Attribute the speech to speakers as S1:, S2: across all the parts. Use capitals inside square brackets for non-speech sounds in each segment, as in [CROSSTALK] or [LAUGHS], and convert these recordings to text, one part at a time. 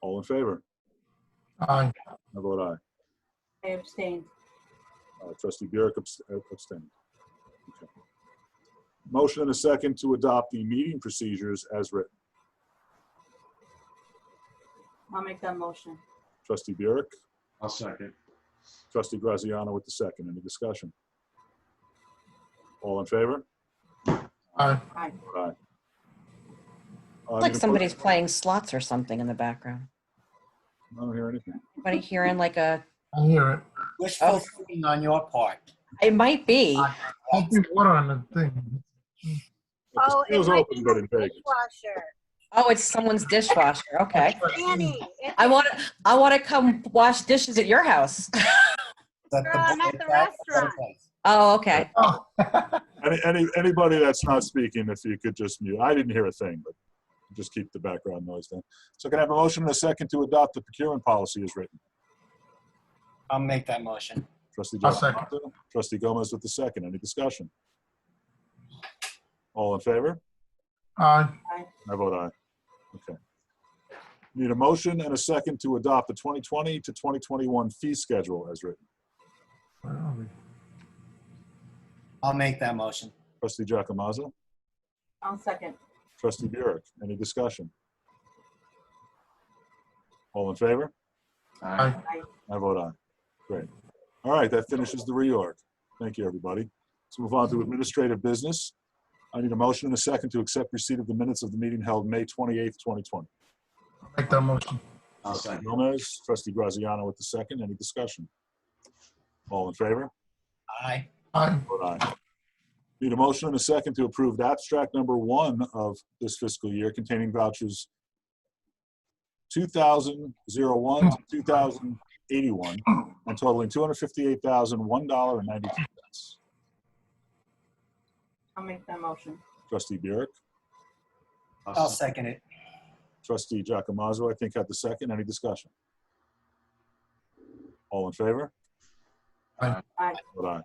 S1: All in favor?
S2: Aye.
S1: I vote aye.
S3: I abstained.
S1: Uh, Trustee Burek abs- uh, abstained. Okay. Motion and a second to adopt the meeting procedures as written.
S3: I'll make that motion.
S1: Trustee Burek,
S4: I'll second.
S1: trustee Graziano with the second. Any discussion? All in favor?
S2: Aye.
S3: Aye.
S1: Aye. Uh,
S5: Like
S1: need a mo-
S5: somebody's playing slots or something in the background.
S1: I don't hear anything.
S5: Anybody hearing like a,
S2: I hear it.
S5: Oh.
S6: Wishful thinking on your part.
S5: it might be.
S2: I think water on the thing.
S1: The
S7: Oh, it
S1: scale's
S7: might
S1: open,
S7: be
S1: but
S7: the
S1: in Vegas.
S7: dishwasher.
S5: Oh, it's someone's dishwasher. Okay.
S7: Danny. it's
S5: I want to, I want to come wash dishes at your house. [LAUGHS]
S6: That
S7: Girl, I'm at the restaurant.
S5: Oh, okay.
S2: Oh,
S1: Any, any, anybody that's not speaking, if you could just mute. I didn't hear a thing, but just keep the background noise down. So can I have a motion and a second to adopt the procurement policy as written?
S6: I'll make that motion.
S1: Trustee
S2: I'll
S1: Giacomo, trustee Gomez with the second. Any discussion? All in favor?
S2: aye.
S1: I vote aye. Okay. Need a motion and a second to adopt the 2020 to 2021 fee schedule as written.
S2: Where are we?
S6: I'll make that motion.
S1: Trustee Giacomazzo,
S3: I'll second.
S1: trustee Burek, any discussion? All in favor?
S4: Aye.
S1: I vote aye. Great. All right, that finishes the reorg. Thank you, everybody. Let's move on to administrative business. I need a motion and a second to accept receipt of the minutes of the meeting held May 28th, 2020.
S2: I'll Make that motion.
S4: I'll second.
S1: Gomez, trustee Graziano with the second. Any discussion? All in favor?
S6: Aye.
S2: Aye.
S1: Vote aye. Need a motion and a second to approve the abstract number one of this fiscal year containing vouchers 2001 to 2081 and totaling $258,001.92.
S3: I'll make that motion.
S1: Trustee Burek,
S6: I'll second it.
S1: trustee Giacomazzo, I think had the second. Any discussion? All in favor?
S3: Aye.
S1: Vote aye.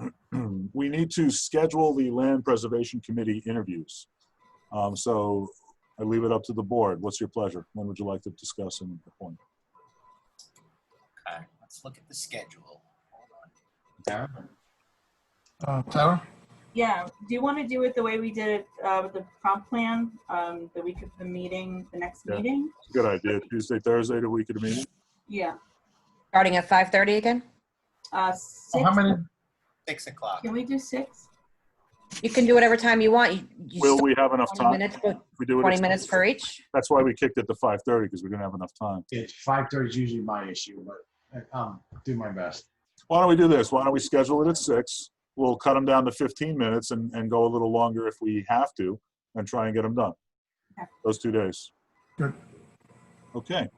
S1: Okay. [CLEARS THROAT] We need to schedule the Land Preservation Committee interviews. Um, So I leave it up to the board. What's your pleasure? When would you like to discuss and appoint?
S6: Okay, let's look at the schedule. Darren?
S2: Uh, Tara?
S3: Yeah, do you want to do it the way we did it uh, with the comp plan, um, the week of the meeting, the next
S1: Yeah.
S3: meeting?
S1: Good idea. Tuesday, Thursday, the week of the meeting?
S3: Yeah,
S5: Starting at 5:30 again?
S3: uh,
S2: Oh,
S3: six,
S2: How many?
S6: Six o'clock.
S3: can we do six?
S5: You can do whatever time you want. You- you
S1: Will
S5: still-
S1: we have enough
S5: 20
S1: time?
S5: minutes,
S1: If we do it at
S5: 20 minutes
S1: 10,
S5: for each?
S1: That's why we kicked it to 5:30 because we didn't have enough time.
S4: It's five thirty is usually my issue, but uh, um, do my best.
S1: Why don't we do this? Why don't we schedule it at six? We'll cut them down to 15 minutes and, and go a little longer if we have to and try and get them done.
S3: Okay.
S1: Those two days.
S2: Good.
S1: Okay,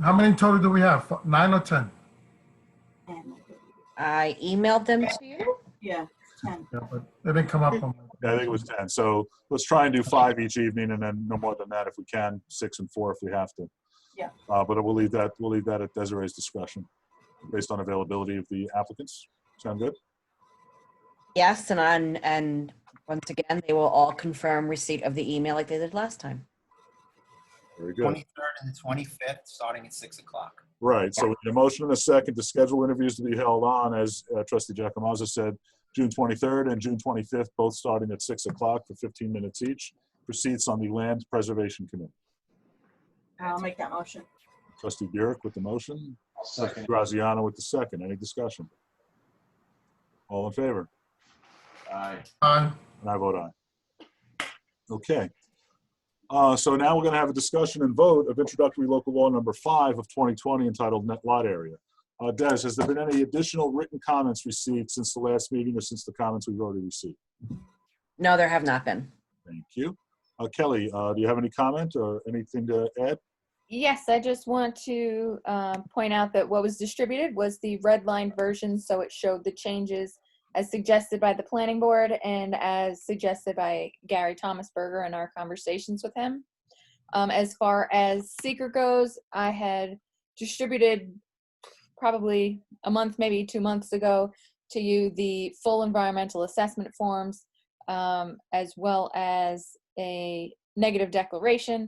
S2: How many total do we have? F- Nine or ten?
S3: Ten.
S5: I emailed them to you.
S3: Yeah, ten.
S2: Yeah, but they didn't come up on.
S1: I think it was 10. So let's try and do five each evening and then no more than that if we can, six and four if we have to.
S3: Yeah.
S1: Uh, but we'll leave that, we'll leave that at Desiree's discretion based on availability of the applicants. Sound good?
S5: Yes, and on, and once again, they will all confirm receipt of the email like they did last time.
S1: Very good.
S6: Twenty-third and the twenty-fifth, starting at six o'clock.
S1: Right, so we need a motion and a second to schedule interviews to be held on, as uh, trustee Jacomaza said, June 23rd and June 25th, both starting at 6 o'clock for 15 minutes each. Proceeds on the Land Preservation Committee.
S3: I'll make that motion.
S1: Trustee Burek with the motion,
S4: I'll second.
S1: Graziano with the second. Any discussion? All in favor?
S4: Aye.
S2: Aye.
S1: And I vote aye. Okay. Uh, So now we're going to have a discussion and vote of introductory local law number five of 2020 entitled Net Lot Area. Uh, Des, has there been any additional written comments received since the last meeting or since the comments we've already received?
S5: No, there have not been.
S1: Thank you. Uh, Kelly, uh, do you have any comment or anything to add?
S8: Yes, I just want to um, point out that what was distributed was the red line version, so it showed the changes as suggested by the planning board and as suggested by Gary Thomasberger in our conversations with him. Um, As far as seeker goes, I had distributed probably a month, maybe two months ago, to you the full environmental assessment forms um, as well as a negative declaration